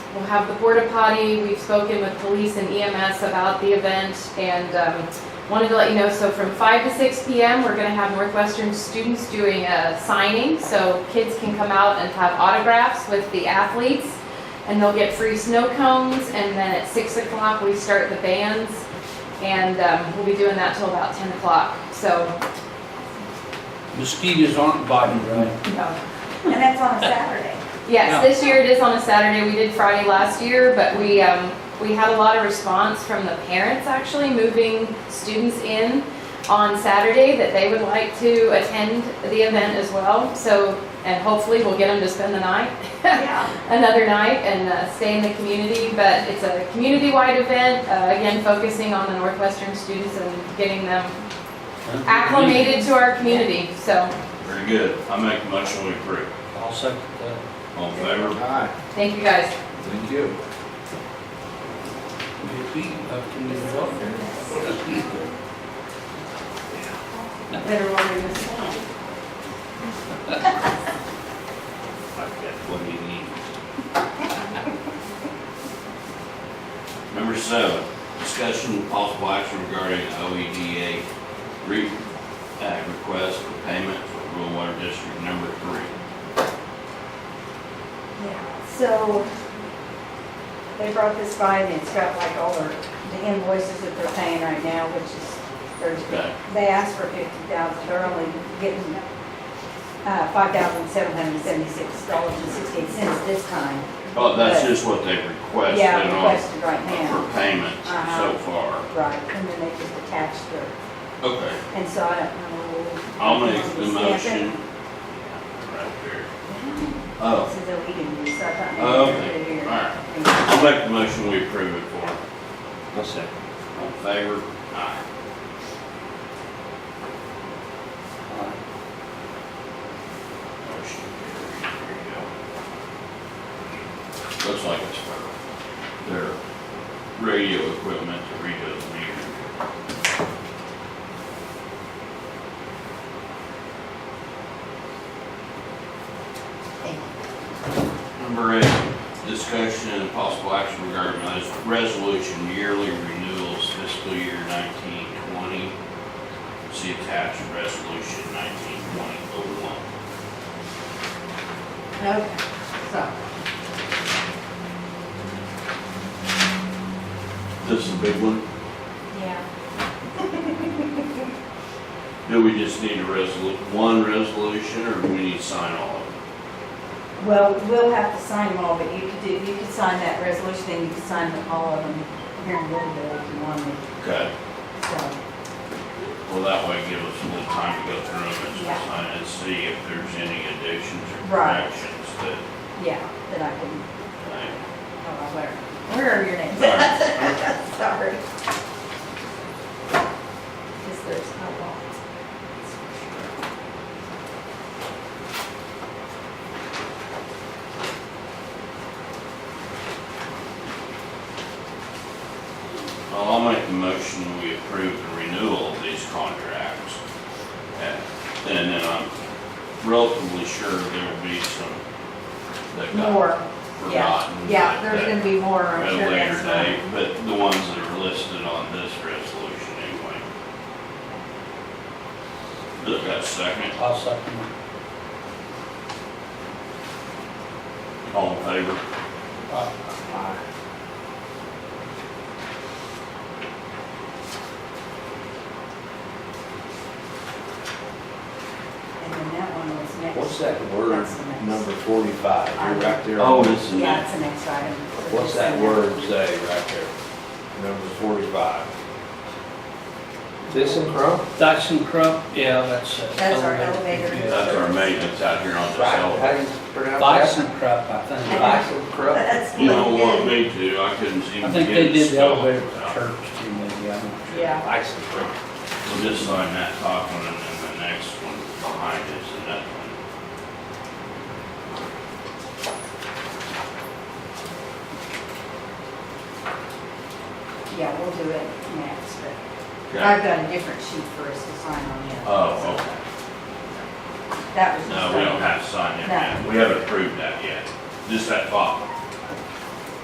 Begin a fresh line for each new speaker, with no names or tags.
We'll have the porta potty. We've spoken with police and EMS about the event and um, wanted to let you know, so from 5 to 6 PM, we're going to have Northwestern students doing a signing. So kids can come out and have autographs with the athletes and they'll get free snow cones. And then at 6 o'clock, we start the bands and um, we'll be doing that till about 10 o'clock. So,
Mosquitoes aren't biting, right?
you know,
And that's on a Saturday.
Yeah.
Yes, this year it is on a Saturday. We did Friday last year, but we, um, we had a lot of response from the parents actually moving students in on Saturday that they would like to attend the event as well. So, and hopefully we'll get them to spend the night,
Yeah.
another night and uh, stay in the community. But it's a community-wide event, uh, again, focusing on the Northwestern students and getting them acclimated to our community, so
Very good. I make a motion we approve.
I'll second that.
All in favor?
Aye,
thank you guys.
thank you.
Maybe up to New York.
Better order this one.
I've got what you need. Number seven, discussion of possible action regarding OEDA re, uh, request for payment for rural water district number three.
Yeah. So they brought this by and it's got like all their, the invoices that they're paying right now, which is, they're-
Okay,
they asked for fifty thousand, they're only getting uh, five thousand seven hundred and seventy-six dollars and sixty-eight cents this time.
well, that's
But-
just what they've requested
Yeah,
on,
requested right now.
for payment so
Uh-huh.
far.
Right, and then they just attached their,
Okay,
and so I don't know.
I'll make the
Stamp
motion.
it.
Right there. Oh,
This is a leading, so I thought. maybe
Oh,
they
okay.
did it here.
All right. I'll make the motion, we approve it for him. I'll second. All in favor? Aye. Motion carries. There you go. Looks like it's for their radio equipment to redo the meter.
Thank you.
Number eight, discussion and possible action regarding res- resolution yearly renewals fiscal year nineteen twenty. See attached resolution nineteen twenty oh one.
Okay, so,
This is a big one.
yeah,
Do we just need a resolu, one resolution or do we need to sign all of them?
well, we'll have to sign them all, but you could do, you could sign that resolution, and you could sign them all of them here in Louisville if you wanted,
Okay,
so.
well, that way give us a little time to go through them and
Yeah.
sign and see if there's any additions or
Right.
corrections that,
Yeah, that I can,
uh,
oh, where, where are your names? Sorry. Because there's a lot.
Well, I'll make the motion, we approve the renewal of these contracts. And and then I'm relatively sure there will be some that got
More, yeah,
forgotten.
yeah,
that-
there's
that
gonna be more,
At
I'm
a
sure
later
that's
date,
right.
but the ones that are listed on this resolution anyway. Look, that second,
I'll second it.
all in favor?
Aye.
Aye.
And then that one was next.
What's that word,
That's the next.
number forty-five, you're right there?
Oh, this is
Yeah,
it.
it's the next item.
What's that word say right there? Number forty-five. This and Crum?
Dyson Crump, yeah, that's. uh,
That's our elevator.
yeah.
That's our maintenance out here on the
Right,
hill.
how do you pronounce that?
Dyson Crump, I think.
Dyson.
Bison Crum?
That's
You don't want
good.
me to, I couldn't seem to get it.
I think they did the
spelled
elevator for
out.
church too, maybe, I don't.
Yeah.
Bison Crum.
We'll just sign that top one and then the next one behind us and that one.
Yeah, we'll do it next, but I've
Okay.
got a different sheet for us to sign on yet.
Oh, okay.
That was. just
No, we don't have to sign it yet. We haven't approved that yet. Just that top one.